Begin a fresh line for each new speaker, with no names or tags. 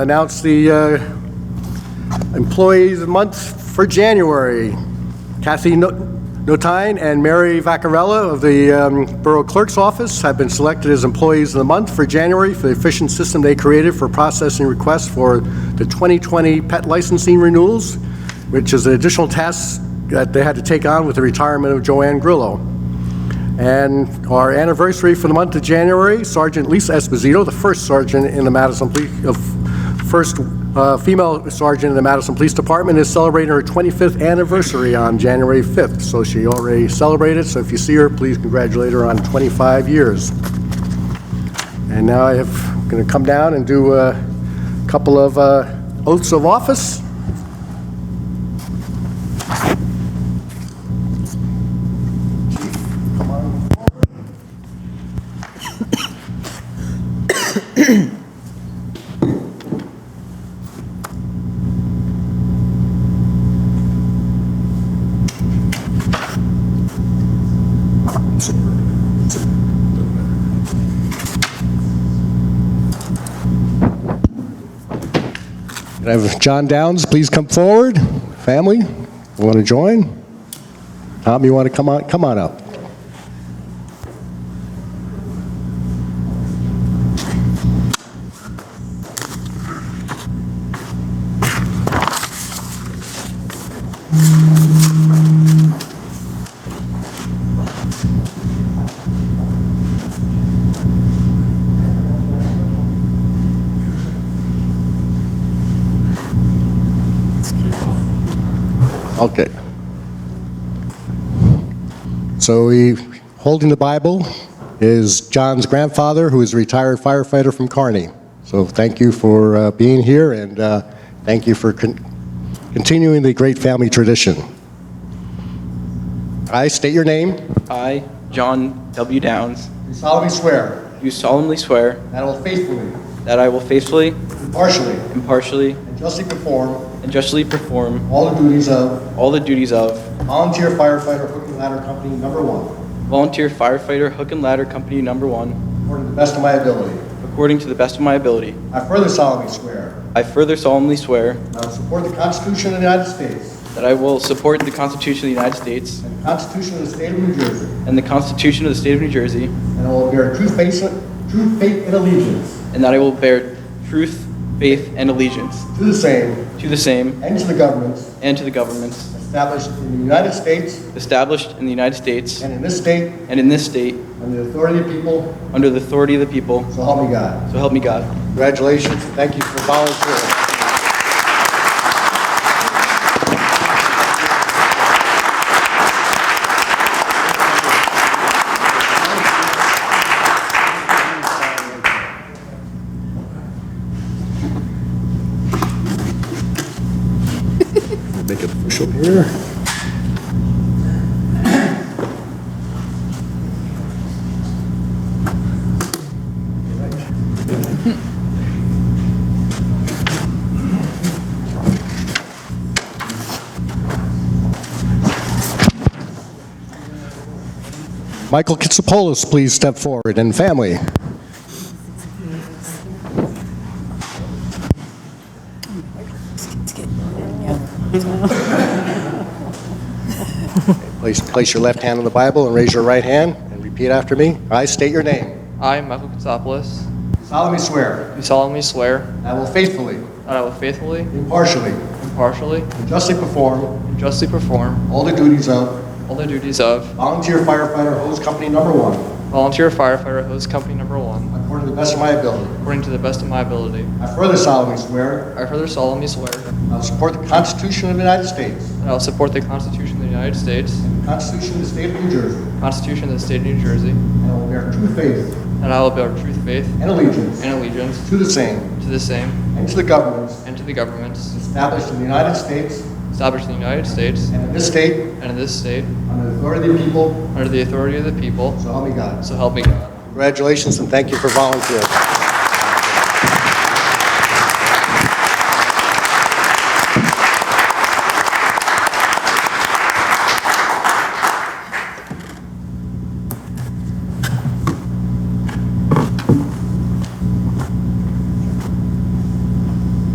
announce the uh, employees' months for January. Kathy No- Notine and Mary Vaccarella of the um, Borough Clerk's Office have been selected as employees of the month for January for the efficient system they created for processing requests for the 2020 pet licensing renewals, which is an additional task that they had to take on with the retirement of Joanne Grillo. And our anniversary for the month of January, Sergeant Lisa Esposito, the first sergeant in the Madison Police, uh, first uh, female sergeant in the Madison Police Department, is celebrating her 25th anniversary on January 5th. So she already celebrated, so if you see her, please congratulate her on 25 years. And now I have, going to come down and do uh, a couple of uh, oaths of office. Can I have John Downs, please come forward. Family, want to join? Tom, you want to come on, come on up? Okay. So he, holding the Bible is John's grandfather, who is a retired firefighter from Kearney. So thank you for uh, being here, and uh, thank you for con- continuing the great family tradition. I state your name.
I, John W. Downs,
Do solemnly swear
do solemnly swear
that I will faithfully,
that I will faithfully,
impartially,
impartially,
and justly perform
and justly perform
all the duties of
all the duties of
volunteer firefighter hook and ladder company number one,
Volunteer Firefighter Hook and Ladder Company Number One,
according to the best of my ability.
according to the best of my ability.
I further solemnly swear
I further solemnly swear
that I will support the Constitution of the United States
that I will support the Constitution of the United States
and the Constitution of the State of New Jersey,
and the Constitution of the State of New Jersey,
and I will bear true faith, true faith and allegiance
and that I will bear truth, faith, and allegiance
to the same
to the same
and to the governments
and to the governments
established in the United States
established in the United States
and in this state
and in this state
under the authority of the people,
under the authority of the people.
so help me God.
So help me God.
Congratulations, and thank you for volunteering. Make it official here. Michael Kitsopolis, please step forward, and family. Place place your left hand on the Bible and raise your right hand, and repeat after me. I state your name.
I, Michael Katsopoulos,
solemnly swear
do solemnly swear
that I will faithfully,
that I will faithfully,
impartially,
impartially,
and justly perform
and justly perform
all the duties of
all the duties of
volunteer firefighter hose company number one,
volunteer firefighter hose company number one,
according to the best of my ability.
according to the best of my ability.
I further solemnly swear
I further solemnly swear that
I will support the Constitution of the United States,
I will support the Constitution of the United States,
the Constitution of the State of New Jersey,
the Constitution of the State of New Jersey,
and I will bear true faith
and I will bear true faith
and allegiance
and allegiance
to the same
to the same
and to the governments
and to the governments
established in the United States
established in the United States
and in this state
and in this state
under the authority of the people,
under the authority of the people,
so help me God.
so help me God.
Congratulations and thank you for volunteering.